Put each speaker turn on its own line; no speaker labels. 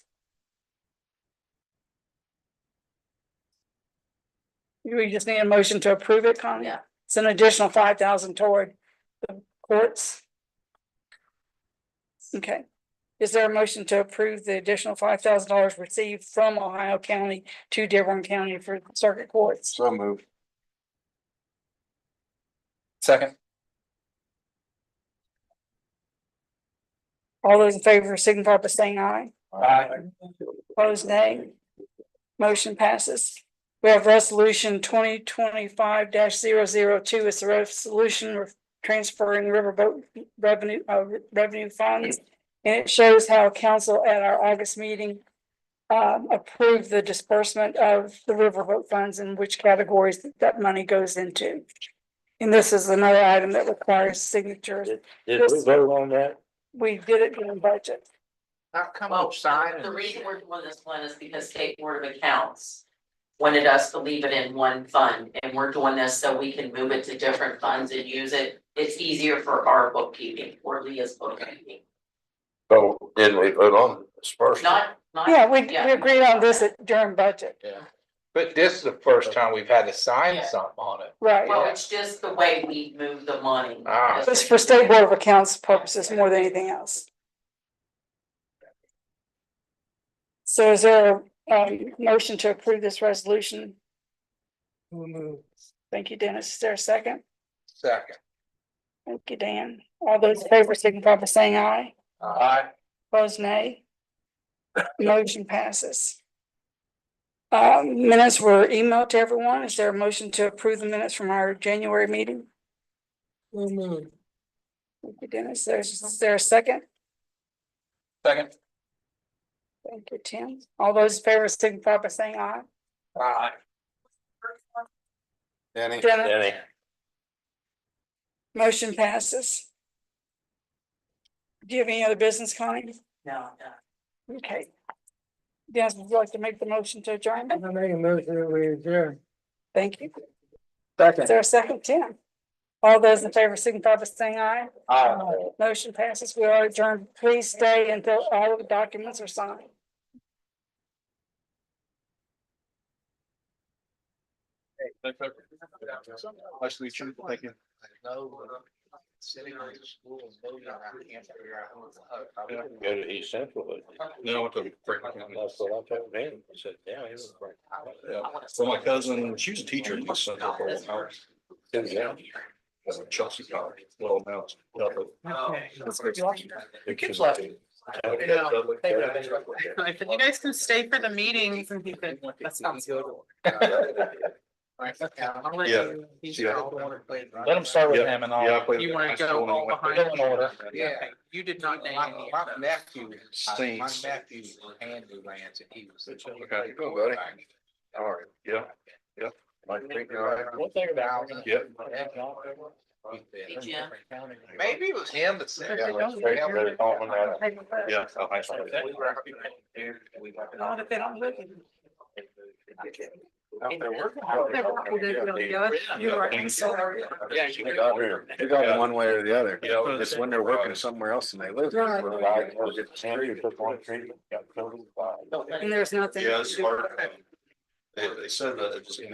We just need a motion to approve it, Connie?
Yeah.
It's an additional five thousand toward the courts. Okay, is there a motion to approve the additional five thousand dollars received from Ohio County to Dearborn County for circuit courts?
So moved. Second.
All those in favor signify by saying aye.
Aye.
Opposed, nay. Motion passes. We have resolution twenty twenty-five 2 It's the resolution of transferring riverboat revenue, uh, revenue funds. And it shows how council at our August meeting um, approved the disbursement of the riverboat funds and which categories that money goes into. And this is another item that requires signatures.
Did we vote on that?
We did it during budget.
How come
Well,
I'm signing?
the reason we're doing this one is because State Board of Accounts wanted us to leave it in one fund, and we're doing this so we can move it to different funds and use it. It's easier for our bookkeeping, or Leah's bookkeeping,
Oh, didn't we vote on this first?
not, not.
Yeah, we, we agreed on this at- during budget,
Yeah, but this is the first time we've had to sign something on it.
right?
Well, it's just the way we move the money.
Ah.
It's for state board of accounts purposes more than anything else. So is there a um, motion to approve this resolution? Thank you, Dennis. Is there a second?
Second.
Thank you, Dan. All those in favor signify by saying aye.
Aye.
Opposed, nay. Motion passes. Um, minutes were emailed to everyone. Is there a motion to approve the minutes from our January meeting? Thank you, Dennis. There's, is there a second?
Second.
Thank you, Tim. All those in favor signify by saying aye.
Aye. Danny.
Jenna,
Danny,
motion passes. Do you have any other business, Connie?
No, no.
Okay. Dennis, would you like to make the motion to adjourn?
I make a motion that we adjourn.
Thank you. Is
Second.
there a second, Tim? All those in favor signify by saying aye.
Aye.
Motion passes. We are adjourned. Please stay until all of the documents are signed.
Much to each other, thank you. Sitting on the school and voting on that, I can't figure out who it's-
go to East Central. with me.
No, I went to Franklin County.
That's what I told him. I said, yeah, he was right.
Yeah. So my cousin, she was a teacher in East Central for a while.
Yeah.
That's a Chelsea College. Well, now it's. Dublin.
The kids
left.
Yeah, Dublin.
I said, you guys can stay for the meetings and he said, that sounds good. I'll let
Yeah.
you- he's
Yeah.
all the one who played, right?
Let him start with
Yeah.
him and
Yeah, I
all.
played
You
that
wanna
high
go
school and
all
went to
behind
Dublin
each
order.
other.
Yeah.
Okay, You did not name
My
any
my
of those.
nephew, my
Stinks.
nephew, Andrew Lance, and he was.
Okay, go, buddy. All right, yeah, yeah. Mike, think you're all right?
One thing about.
Yep.
Hey, Jim.
Maybe it was him that said.
Yeah, that's great. Very common, right? Yeah, so high school.
Not if they don't look at you.
Out there working.
You
Yeah,
are you
you
got
got
her.
it.
You got it one
way or the other.
Yeah, it's when they're working
somewhere else and they live.
Right, was it Henry who took on treatment, got killed in the fire?
And there's nothing.
Yeah, it's hard. They, they said that it just